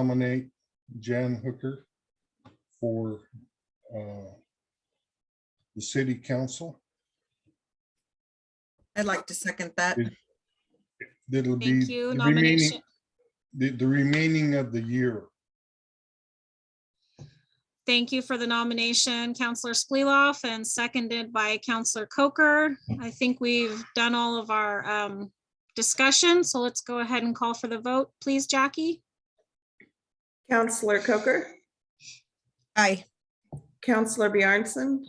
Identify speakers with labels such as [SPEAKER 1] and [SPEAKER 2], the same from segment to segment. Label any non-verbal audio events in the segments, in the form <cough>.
[SPEAKER 1] nominate Jan Hooker for uh, the city council.
[SPEAKER 2] I'd like to second that.
[SPEAKER 1] That'll be
[SPEAKER 3] Thank you.
[SPEAKER 1] the
[SPEAKER 3] Nomination,
[SPEAKER 1] remaining, the the remaining of the year.
[SPEAKER 3] thank you for the nomination, Counselor Spleeloff, and seconded by Counselor Coker. I think we've done all of our um, discussion, so let's go ahead and call for the vote, please, Jackie.
[SPEAKER 4] Counselor Coker,
[SPEAKER 2] Aye.
[SPEAKER 4] Counselor Bjarnson.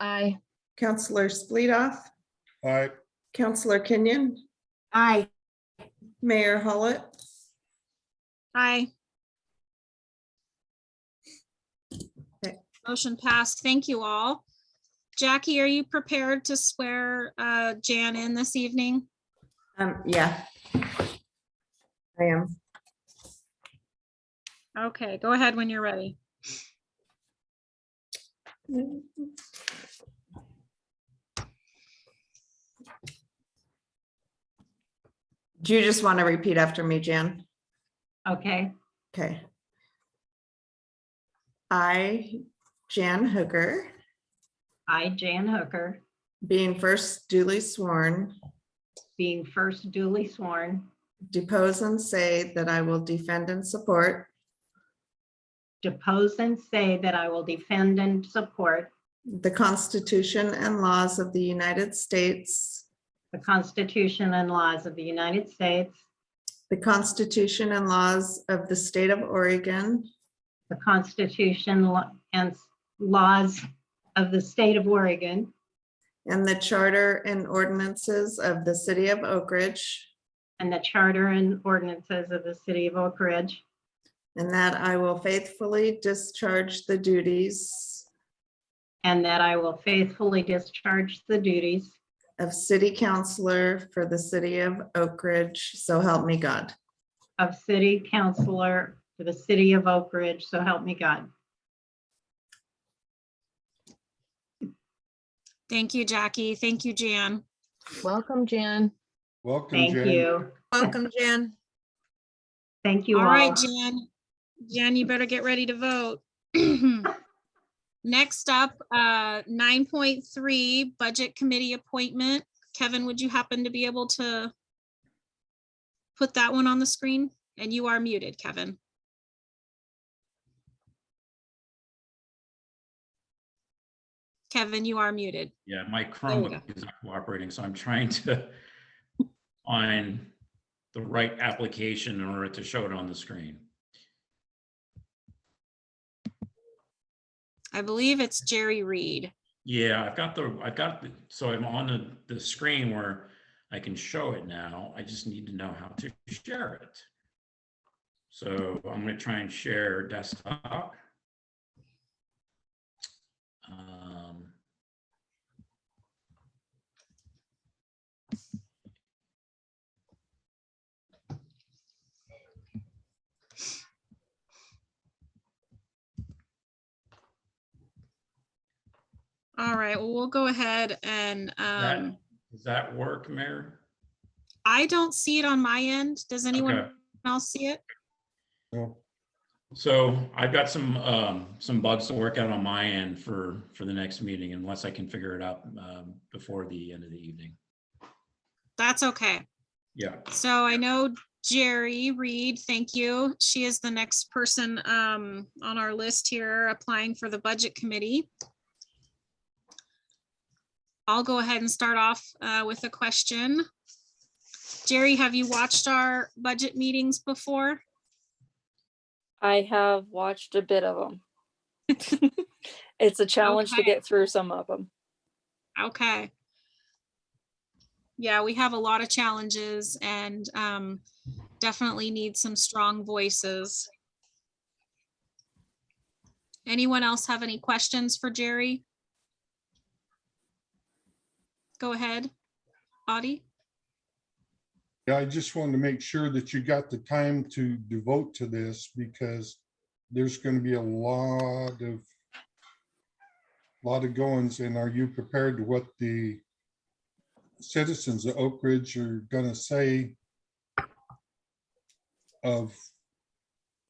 [SPEAKER 4] Aye. Counselor Spleedoff,
[SPEAKER 1] All right,
[SPEAKER 4] Counselor Kenyon,
[SPEAKER 5] Aye.
[SPEAKER 4] Mayor Hollett,
[SPEAKER 3] Aye.
[SPEAKER 4] Okay.
[SPEAKER 3] Motion passed. Thank you all. Jackie, are you prepared to swear uh, Jan in this evening?
[SPEAKER 4] Um, yeah. I am.
[SPEAKER 3] Okay, go ahead when you're ready.
[SPEAKER 4] Do you just want to repeat after me, Jan?
[SPEAKER 5] Okay.
[SPEAKER 4] Okay. I, Jan Hooker,
[SPEAKER 5] I, Jan Hooker,
[SPEAKER 4] being first duly sworn,
[SPEAKER 5] being first duly sworn,
[SPEAKER 4] depose and say that I will defend and support
[SPEAKER 5] depose and say that I will defend and support
[SPEAKER 4] the Constitution and laws of the United States
[SPEAKER 5] the Constitution and laws of the United States,
[SPEAKER 4] The Constitution and laws of the state of Oregon
[SPEAKER 5] the Constitution lo- and s- laws of the state of Oregon,
[SPEAKER 4] and the charter and ordinances of the city of Oak Ridge,
[SPEAKER 5] and the charter and ordinances of the city of Oak Ridge,
[SPEAKER 4] and that I will faithfully discharge the duties
[SPEAKER 5] and that I will faithfully discharge the duties
[SPEAKER 4] of city councillor for the city of Oak Ridge, so help me God.
[SPEAKER 5] of city councillor for the city of Oak Ridge, so help me God.
[SPEAKER 3] Thank you, Jackie. Thank you, Jan.
[SPEAKER 6] Welcome, Jan.
[SPEAKER 1] welcome,
[SPEAKER 5] Thank
[SPEAKER 1] Jan.
[SPEAKER 5] you.
[SPEAKER 2] Welcome, Jan.
[SPEAKER 5] Thank you
[SPEAKER 3] All
[SPEAKER 5] all.
[SPEAKER 3] right, Jan. Jan, you better get ready to vote. <clears throat> Next up, uh, nine point three, Budget Committee Appointment. Kevin, would you happen to be able to put that one on the screen? And you are muted, Kevin. Kevin, you are muted.
[SPEAKER 7] Yeah, my
[SPEAKER 3] we
[SPEAKER 7] Chromebook is not cooperating, so I'm trying to find the right application in order to show it on the screen.
[SPEAKER 3] I believe it's Jerry Reed.
[SPEAKER 7] Yeah, I've got the, I've got, the so I'm on the, the screen where I can show it now. I just need to know how to share it. So I'm gonna try and share desktop. Um,
[SPEAKER 3] All right, well, we'll go ahead and,
[SPEAKER 7] that-
[SPEAKER 3] um,
[SPEAKER 7] Does that work, Mayor?
[SPEAKER 3] I don't see it on my end. Does anyone
[SPEAKER 7] Okay.
[SPEAKER 3] else see it?
[SPEAKER 1] No,
[SPEAKER 7] So I've got some, um, some bugs to work out on my end for, for the next meeting unless I can figure it out, um, before the end of the evening.
[SPEAKER 3] That's okay.
[SPEAKER 7] Yeah,
[SPEAKER 3] So I know Jerry Reed, thank you. She is the next person um on our list here applying for the budget committee. I'll go ahead and start off uh with a question. Jerry, have you watched our budget meetings before?
[SPEAKER 8] I have watched a bit of them. It's a challenge to
[SPEAKER 3] Okay.
[SPEAKER 8] get through some of them.
[SPEAKER 3] Okay. Yeah, we have a lot of challenges and um definitely need some strong voices. Anyone else have any questions for Jerry? Go ahead, Audie.
[SPEAKER 1] Yeah, I just wanted to make sure that you got the time to devote to this because there's going to be a lot of lot of goings and are you prepared to what the citizens of Oak Ridge are going to say of